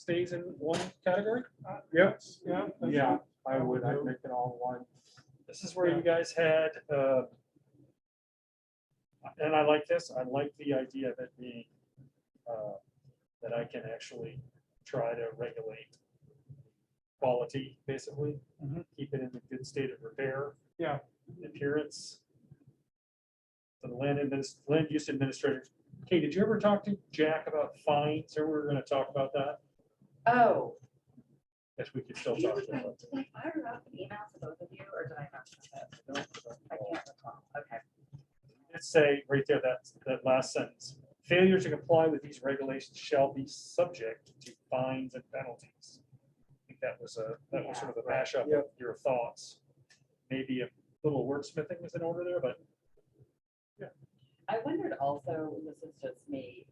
stays in one category? Yep. Yeah. that's Yeah, fine. I would, I'd make it all one. This is where you guys had, uh, and I like this, I like the idea of it being, uh, that I can actually try to regulate quality, basically, Mhm. keep it in a good state of repair. Yeah. Appearance. The land adminis, land use administrator, Kate, did you ever talk to Jack about fines, or we were gonna talk about that? Oh. Yes, we could still you talk were to gonna- him. Did I fire up an email to both of you or did I not? send it? I can't recall. Okay. Let's say right there, that, that last sentence, failure to comply with these regulations shall be subject to fines and penalties. I think that was a, that was sort of a mashup of your thoughts. Maybe a little wordsmithing was in order there, but I wondered also, this is just me.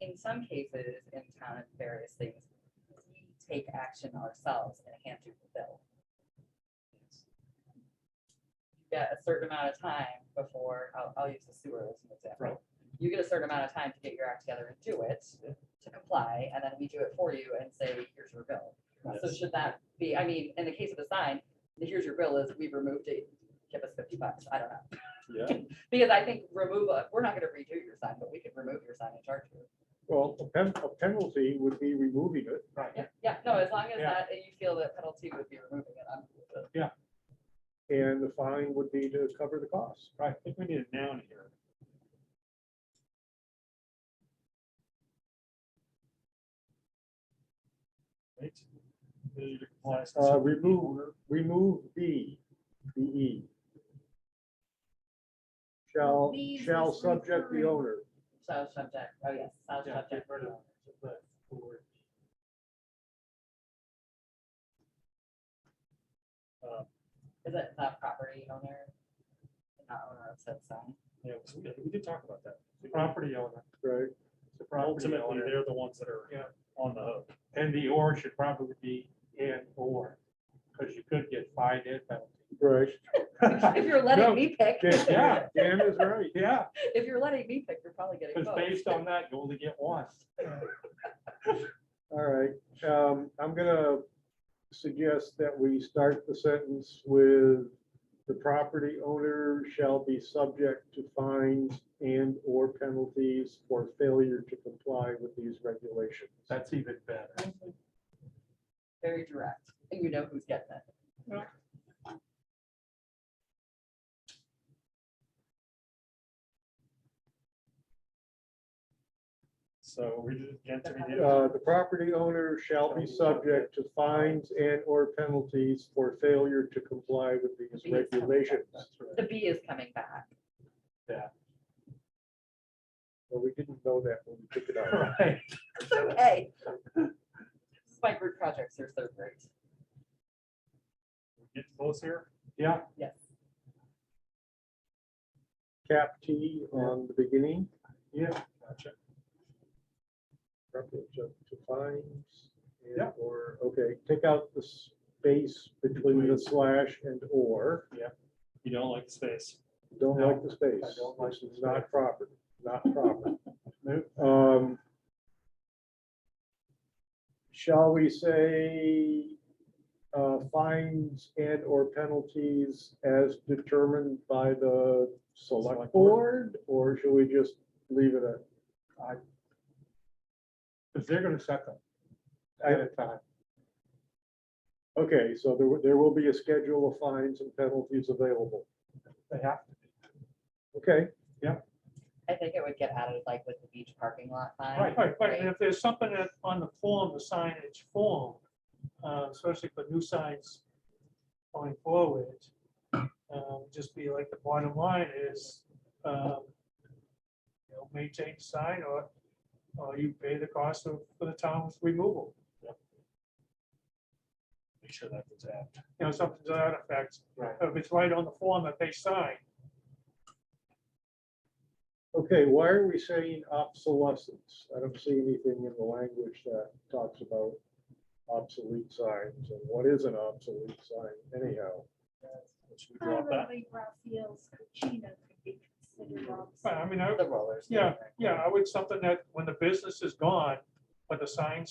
In some cases in town and various things, we take action ourselves and hand you the bill. You get a certain amount of time before, I'll, I'll use the sewer as an Right. example. You get a certain amount of time to get your act together and do it, to comply, and then we do it for you and say, here's your bill. So Yes. should that be, I mean, in the case of the sign, the here's your bill is, we've removed it, give us fifty bucks, I don't know. yeah, Because I think remove a, we're not gonna redo your sign, but we can remove your sign and charge you. Well, a pen- a penalty would be removing it. Yeah, yeah, no, as long as Yeah. that, you feel that penalty would be removing it, I'm. cool with it. And the fine would be to cover the cost. I think we need a noun here. Right? Failure to comply. Uh, remove, remove B, B E. Shall, Leave shall is subject the referring- owner. So subject, oh yes, so Yeah, subject. get rid of Uh, Is it the property owner? Not owner of said sign. Yeah, we we did talk about that. The Property owner. Right, the property Ultimately, they're the ones that are on the hook. And the or should probably be in or, because you could get fined and right. penalty. If you're letting No, me pick, Dan- Yeah. Dan is right. Yeah, if you're letting me pick, you're probably getting because both. based on that, you only get one. All right, um, I'm gonna suggest that we start the sentence with the property owner shall be subject to fines and or penalties for failure to comply with these regulations. That's even better. Very direct, and you know who's getting it. So we did, again, to me, Uh, the property owner shall be subject to fines and or penalties for failure to comply with these regulations. The B is coming back. Well, we didn't know that when we took it out. Right. It's okay. This is my group projects, they're so great. get close here. Yeah, Yes. Cap T on the beginning. yeah. Gotcha. Probably jump to fines. and Yeah. Or, okay, take out the space between the slash and or. You don't like the space. Don't No, like the space. I don't like This the is space. Not proper, not proper. Nope. Um. Shall we say, uh, fines and or penalties as determined by the select Select board? Or should we just leave it at, Because they're gonna set them I- at a time. okay, so there, will- there will be a schedule of fines and penalties available. They have to. Okay, I think it would get added like with the beach parking lot sign. Right, right, right. If there's something that on the form, the signage form, uh, especially for new signs going forward, um, just be like the bottom line is, um, you know, maintain the sign or, or you pay the cost of, for the town's removal. Make sure that gets added. You know, something to that effect. Right. If it's right on the form that they sign, okay, why are we saying obsolescence? I don't see anything in the language that talks about obsolete signs and what is an obsolete sign anyhow? Should we drop that? Probably Raphael's Cucina could be considered Well, obsolete. I mean, I, The rollers. yeah, yeah, I would, something that when the business is gone, but the signs